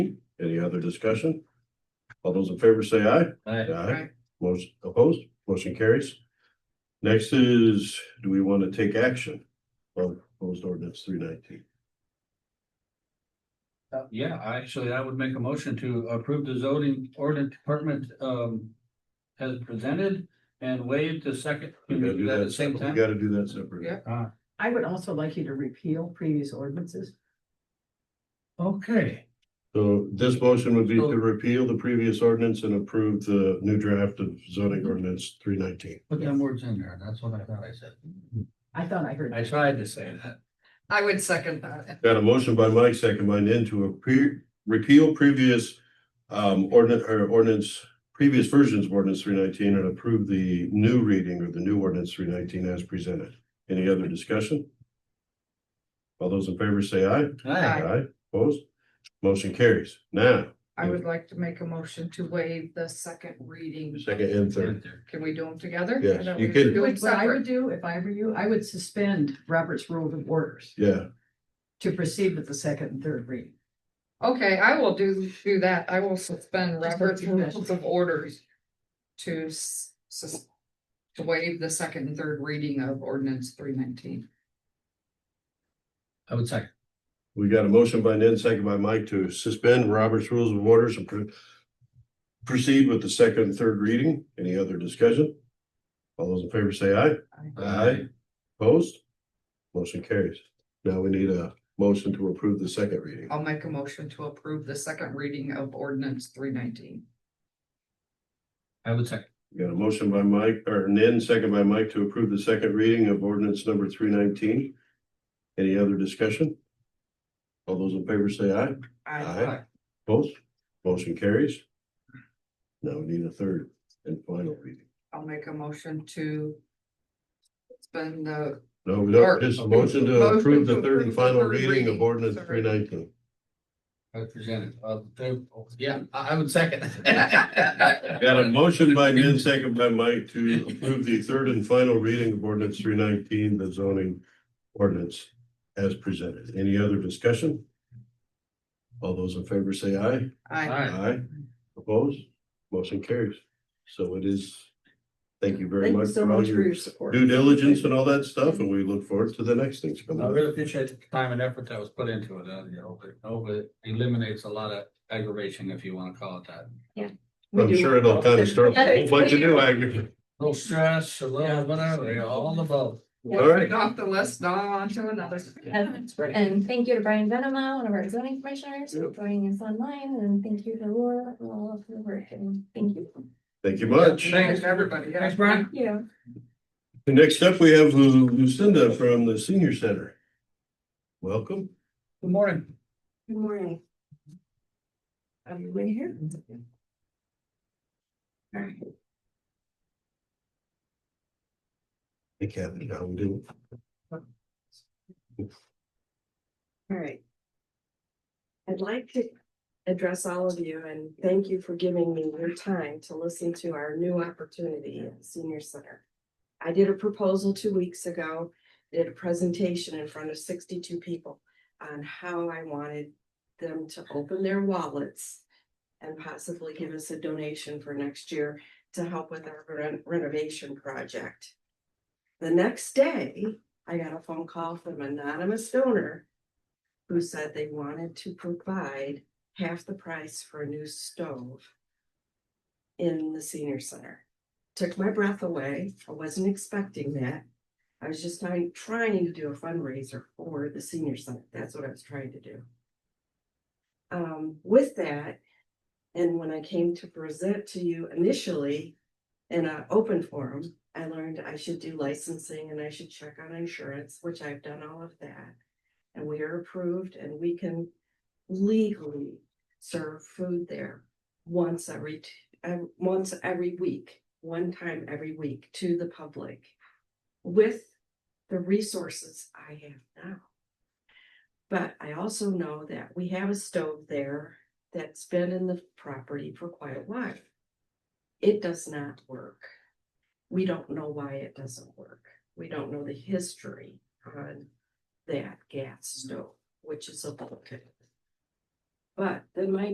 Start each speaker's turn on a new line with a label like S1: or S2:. S1: other discussion? All those in favor say aye.
S2: Aye.
S1: Aye. Most opposed, motion carries. Next is, do we want to take action on proposed ordinance three nineteen?
S2: Uh, Yeah, actually, I would make a motion to approve the zoning ordinance department um as presented and waive the second. Can we do that at the same
S1: We
S2: time?
S1: gotta do that separately.
S3: Yeah. I would also like you to repeal previous ordinances.
S2: Uh, Okay,
S1: So this motion would be to repeal the previous ordinance and approve the new draft of zoning ordinance three nineteen.
S2: put them words in there. That's what I thought I said.
S3: I thought I heard.
S2: I tried to say that.
S3: I would second that.
S1: Got a motion by Mike, second by Nan to appre- repeal previous um ordinance or ordinance, previous versions of ordinance three nineteen and approve the new reading of the new ordinance three nineteen as presented. Any other discussion? All those in favor say aye.
S2: Aye.
S1: Opposed? Motion carries. Now,
S4: I would like to make a motion to waive the second reading.
S1: second and third.
S4: Can we do them together?
S1: Yes,
S4: I thought
S1: you
S4: we
S1: can.
S4: were doing
S3: What I would
S4: separate.
S3: do, if I were you, I would suspend Robert's Rules of Orders
S1: Yeah,
S3: to proceed with the second and third reading.
S4: Okay, I will do, do that. I will suspend
S3: Just
S4: Robert's
S3: do that.
S4: rules of orders to s- sus- to waive the second and third reading of ordinance three nineteen.
S2: I would second.
S1: we got a motion by Nan, second by Mike to suspend Robert's Rules of Orders and pro- proceed with the second and third reading. Any other discussion? All those in favor say aye. Aye. Opposed? Motion carries. Now we need a motion to approve the second reading.
S4: I'll make a motion to approve the second reading of ordinance three nineteen.
S2: I would second.
S1: We Got a motion by Mike, or Nin, second by Mike to approve the second reading of ordinance number three nineteen. Any other discussion? All those in favor say aye. Aye. Opposed? Motion carries. Now we need a third and final reading.
S4: I'll make a motion to suspend the
S1: No, we don't, just a motion to approve the third and final reading of ordinance three nineteen.
S2: I presented. Uh, there, yeah, I, I would second.
S1: Got a motion by Nan, second by Mike to approve the third and final reading of ordinance three nineteen, the zoning ordinance as presented. Any other discussion? All those in favor say aye.
S4: Aye.
S2: Aye.
S1: Aye. Opposed? Motion carries. So it is. Thank you very
S3: Thank you
S1: much
S3: so
S1: for all
S3: much for
S1: your
S3: your support.
S1: due diligence and all that stuff, and we look forward to the next things coming
S2: I
S1: up.
S2: really appreciate the time and effort that was put into it, uh, you know, but, oh, but it eliminates a lot of aggravation, if you wanna call it that.
S3: We
S1: I'm
S3: do.
S1: sure it'll kind of start a whole bunch of new aggregate.
S2: No stress, a
S3: Yeah.
S2: little, whatever, you know, all above.
S1: All right.
S4: Get Off the list, now on to another.
S5: And Um, and thank you to Brian Venema, one of our zoning commissioners, for
S1: Yep.
S5: joining us online, and thank you to Laura for all of your work, and thank you.
S1: Thank you much.
S2: Thanks.
S4: Everybody. yeah.
S2: Thanks, Brian.
S5: Yeah.
S1: Next up, we have Lu- Lucinda from the senior center. Welcome.
S2: Good morning.
S6: Good morning. Everybody here? All right,
S1: Hey, Kathy, how we doing?
S6: all right. I'd like to address all of you and thank you for giving me your time to listen to our new opportunity at the Senior Center. I did a proposal two weeks ago, did a presentation in front of sixty-two people on how I wanted them to open their wallets and possibly give us a donation for next year to help with our ren- renovation project. The next day, I got a phone call from an anonymous donor who said they wanted to provide half the price for a new stove in the senior center. Took my breath away. I wasn't expecting that. I was just trying, trying to do a fundraiser for the senior center. That's what I was trying to do. Um, with that, and when I came to present to you initially in an open forum, I learned I should do licensing and I should check on insurance, which I've done all of that. And we are approved and we can legally serve food there once every, t- uh, once every week, one time every week to the public with the resources I have now. But I also know that we have a stove there that's been in the property for quite a while. It does not work. We don't know why it doesn't work. We don't know the history on that gas stove, which is a bulkhead. But then my